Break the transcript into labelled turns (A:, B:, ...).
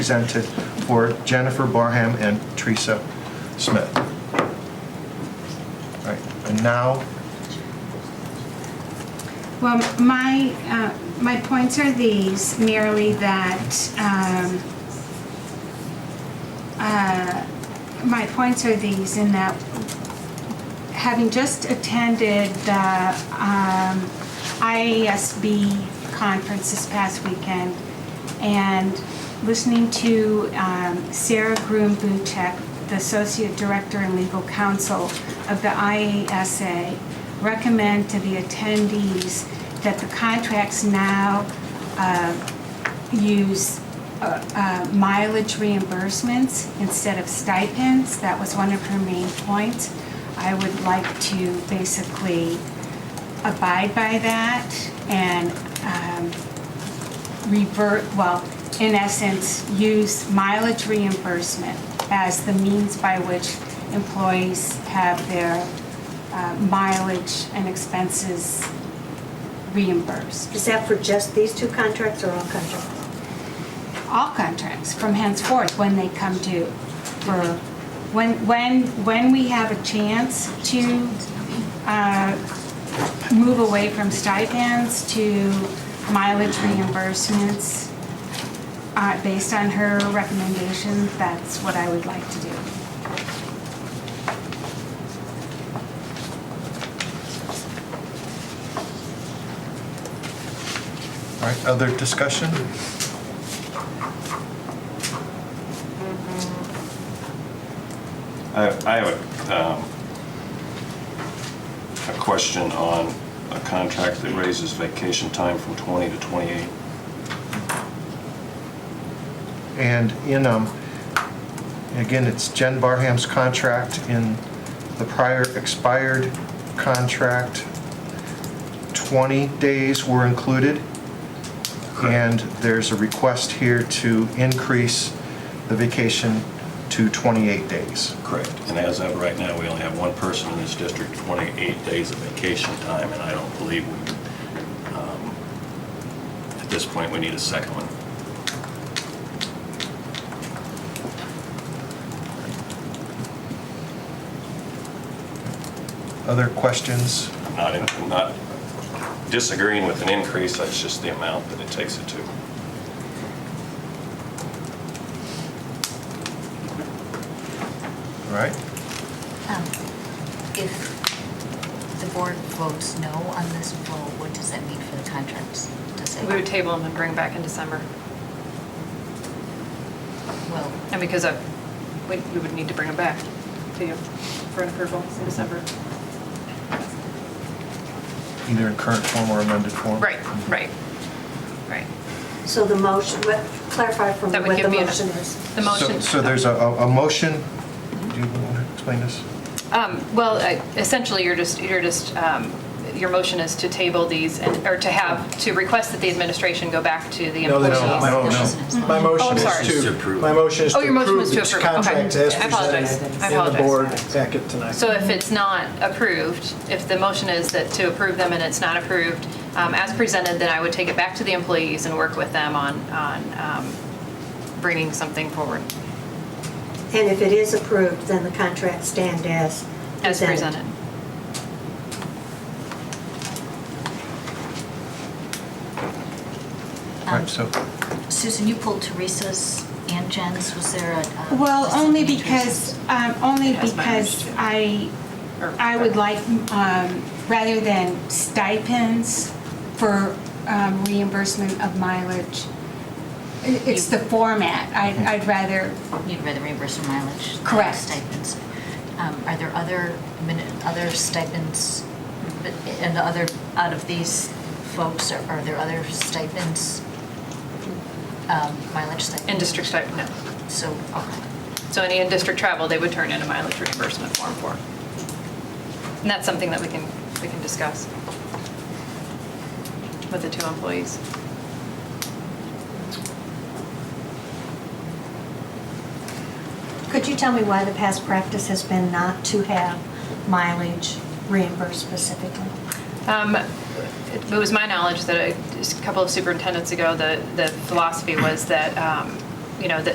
A: presented for Jennifer Barham and Teresa Smith. All right, and now,
B: Well, my, uh, my points are these, merely that, um, uh, my points are these in that, having just attended the um, IASB conference this past weekend and listening to um, Sarah Groom Buchek, the Associate Director and Legal Counsel of the IASA, recommend to the attendees that the contracts now uh, use uh, uh, mileage reimbursements instead of stipends. That was one of her main points. I would like to basically abide by that and um, revert, well, in essence, use mileage reimbursement as the means by which employees have their uh, mileage and expenses reimbursed.
C: Is that for just these two contracts or all contracts?
B: all contracts from henceforth when they come due. For when, when, when we have a chance to uh, move away from stipends to mileage reimbursements, uh, based on her recommendation, that's what I would like to do.
A: all right, other discussion?
D: I I have a, um, a question on a contract that raises vacation time from 20 to 28.
A: And in, um, again, it's Jen Barham's contract in the prior expired contract. 20 days were included. And there's a request here to increase the vacation to 28 days.
D: Correct. And as of right now, we only have one person in this district, 28 days of vacation time, and I don't believe, we um, at this point, we need a second one.
A: Other questions?
D: I'm not, in- I'm not disagreeing with an increase, that's just the amount that it takes it to.
A: All right,
E: Um, If the board votes no on this vote, what does that mean for the contracts? Does it,
F: We would table them and bring back in December.
E: well,
F: And because of, we we would need to bring them back to you for an approval in December.
A: either in current form or amended form. Mm-hmm.
F: Right, right, right.
C: So the motion, what- clarify for me
F: That would
C: what
F: give
C: the
F: me an-
C: motion is.
F: The
A: So-
F: motion.
A: So there's a, a a motion, do you want to explain this?
F: Um, Well, I- essentially, you're just, you're just, um, your motion is to table these, and or to have, to request that the administration go back to the
G: No, they
F: employees. Oh,
G: don't. My
E: No, no.
G: motion- my motion
F: sorry.
G: is to, my motion is to
F: Oh, your motion was
G: approve
F: to
G: this
F: approve. Okay.
G: contract as
F: I apologize.
G: presented
F: I
G: in the
F: apologize.
G: board packet tonight.
F: So if it's not approved, if the motion is that to approve them and it's not approved, um, as presented, then I would take it back to the employees and work with them on, on um, bringing something forward
C: And if it is approved, then the contracts stand as
F: as presented.
A: All right, so,
E: Oh, Susan, you pulled Teresa's and Jen's, was there a? um,
B: Well,
E: was
B: only
E: something
B: because,
E: Teresa's?
B: um, only
F: That's my
B: because I,
F: Or-
B: I would like, um, rather than stipends for um, reimbursement of mileage, i- it's the format. I'd, I'd rather,
E: You'd rather reimburse her mileage? than
B: Correct.
E: Stipends. Um, Are there other, min- other stipends, and the other, out of these folks, are are there other stipends? um, Mileage stipends?
F: In district stipend, no.
E: So, okay.
F: So any in-district travel, they would turn in a mileage reimbursement form for. And that's something that we can, we can discuss with the two employees.
C: Could you tell me why the past practice has been not to have mileage reimbursed specifically?
F: Um, It it was my knowledge that a just a couple of superintendents ago, the, the philosophy was that, um, you know, that